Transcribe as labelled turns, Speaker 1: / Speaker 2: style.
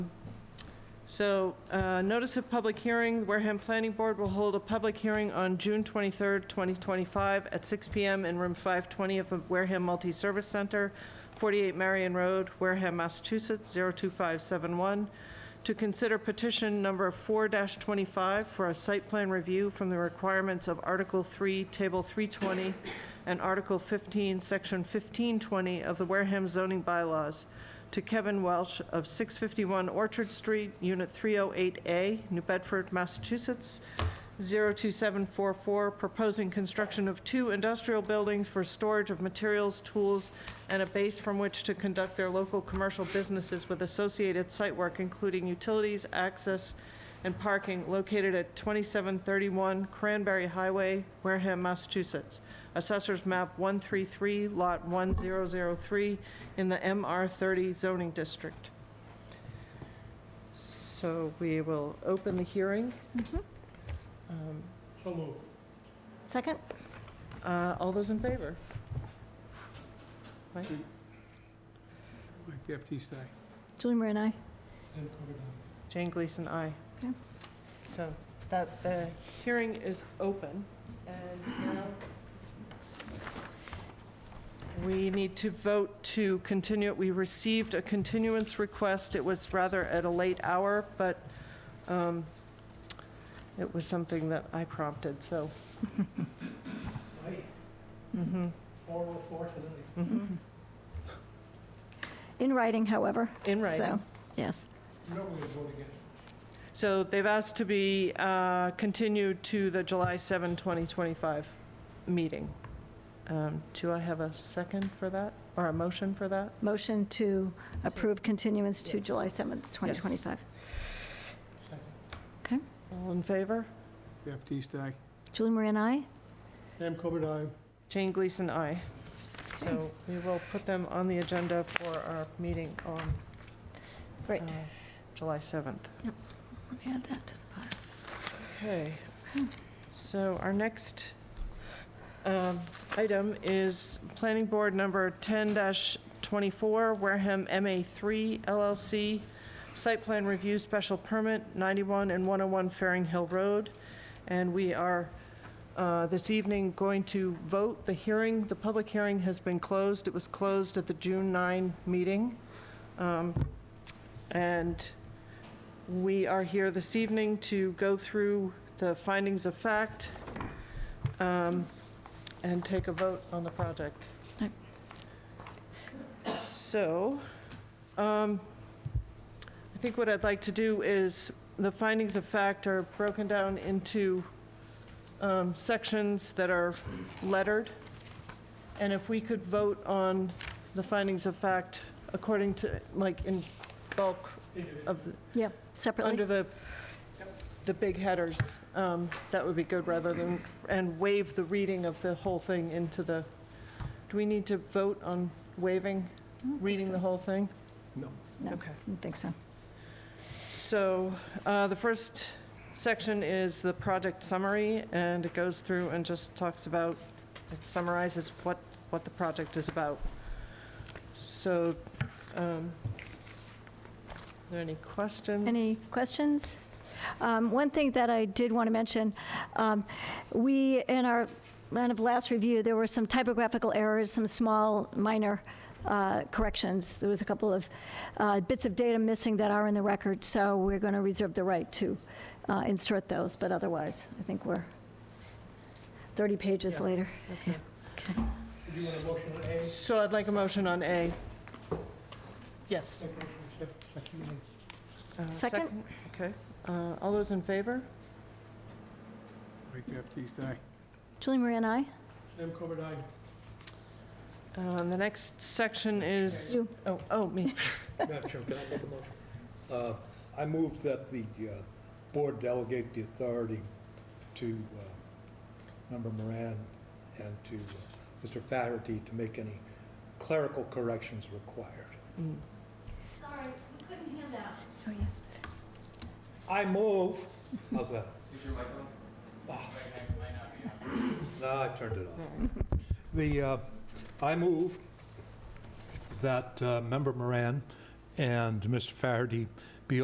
Speaker 1: So, uh, notice of public hearing, Wareham Planning Board will hold a public hearing on June 23rd, 2025, at 6 PM in Room 520 of the Wareham Multi-Service Center, 48 Marion Road, Wareham, Massachusetts, 02571, to consider petition number 4-25 for a site plan review from the requirements of Article 3, Table 320, and Article 15, Section 1520 of the Wareham zoning bylaws to Kevin Welsh of 651 Orchard Street, Unit 308A, New Bedford, Massachusetts, 02744, proposing construction of two industrial buildings for storage of materials, tools, and a base from which to conduct their local commercial businesses with associated site work, including utilities, access, and parking located at 2731 Cranberry Highway, Wareham, Massachusetts. Assessors map 133, lot 1003, in the MR30 zoning district. So we will open the hearing. Um,
Speaker 2: So moved.
Speaker 3: Second?
Speaker 1: uh, All those in favor?
Speaker 2: Mike Baptiste, aye.
Speaker 3: Julie Moran, aye.
Speaker 2: Sam Coogan,
Speaker 1: Jane Gleason, aye.
Speaker 3: Okay.
Speaker 1: So that, the hearing is open, and now we need to vote to continue. We received a continuance request. It was rather at a late hour, but um, it was something that I prompted, so.
Speaker 2: aye. Aye,
Speaker 1: mhm,
Speaker 2: 404 tonight.
Speaker 1: mhm.
Speaker 3: In writing, however.
Speaker 1: In writing.
Speaker 3: So, yes.
Speaker 2: You know we're gonna vote again.
Speaker 1: So they've asked to be uh, continued to the July 7, 2025 meeting. Um, Do I have a second for that, or a motion for that?
Speaker 3: Motion to approve continuance to
Speaker 1: Yes.
Speaker 3: July 7th, 2025.
Speaker 2: Second.
Speaker 1: All in favor?
Speaker 2: Baptiste, aye.
Speaker 3: Julie Moran, aye.
Speaker 2: Sam Coogan, aye.
Speaker 1: Jane Gleason, aye. So we will put them on the agenda for our meeting on
Speaker 3: Great.
Speaker 1: uh, July 7th.
Speaker 3: Let me add that to the pile.
Speaker 1: Okay, so our next um, item is Planning Board Number 10-24, Wareham MA3 LLC, Site Plan Review Special Permit, 91 and 101 Fairing Hill Road. And we are, uh, this evening, going to vote. The hearing, the public hearing has been closed. It was closed at the June 9 meeting. Um, And we are here this evening to go through the findings of fact um, and take a vote on the project.
Speaker 3: Yep.
Speaker 1: So, um, I think what I'd like to do is, the findings of fact are broken down into um, sections that are lettered. And if we could vote on the findings of fact according to, like, in bulk of, the-
Speaker 3: Yeah,
Speaker 1: under
Speaker 3: separately.
Speaker 1: the, the big headers, um, that would be good, rather than, and waive the reading of the whole thing into the, do we need to vote on waiving,
Speaker 3: I don't think
Speaker 1: reading
Speaker 3: so.
Speaker 1: the whole thing?
Speaker 2: No.
Speaker 3: No,
Speaker 1: Okay.
Speaker 3: I don't think so.
Speaker 1: So uh, the first section is the project summary, and it goes through and just talks about, it summarizes what, what the project is about. So, um, are there any questions?
Speaker 3: Any questions? Um, One thing that I did want to mention, um, we, in our kind of last review, there were some typographical errors, some small, minor uh, corrections. There was a couple of uh, bits of data missing that are in the record, so we're going to reserve the right to uh, insert those, but otherwise, I think we're 30 pages
Speaker 1: Yeah.
Speaker 3: later.
Speaker 1: Okay.
Speaker 3: Okay.
Speaker 2: Do you want a motion on A?
Speaker 1: So I'd like a motion on A. Yes.
Speaker 2: Second motion, sec- second motion.
Speaker 1: Uh,
Speaker 3: Second.
Speaker 1: Okay. Uh, All those in favor?
Speaker 2: Mike Baptiste, aye.
Speaker 3: Julie Marie and I?
Speaker 2: Sam Coogan, aye.
Speaker 1: Uh, The next section is,
Speaker 3: You.
Speaker 1: oh, oh, me.
Speaker 4: Madam Chair, can I make a motion? Uh, I move that the uh, board delegate the authority to uh, Member Moran and to uh, Mr. Flaherty to make any clerical corrections required.
Speaker 1: Mm.
Speaker 3: Oh, yeah.
Speaker 4: I move, how's that? Is your mic on? No, I turned it off. The, uh, I move that uh, Member Moran and Mr. Faraday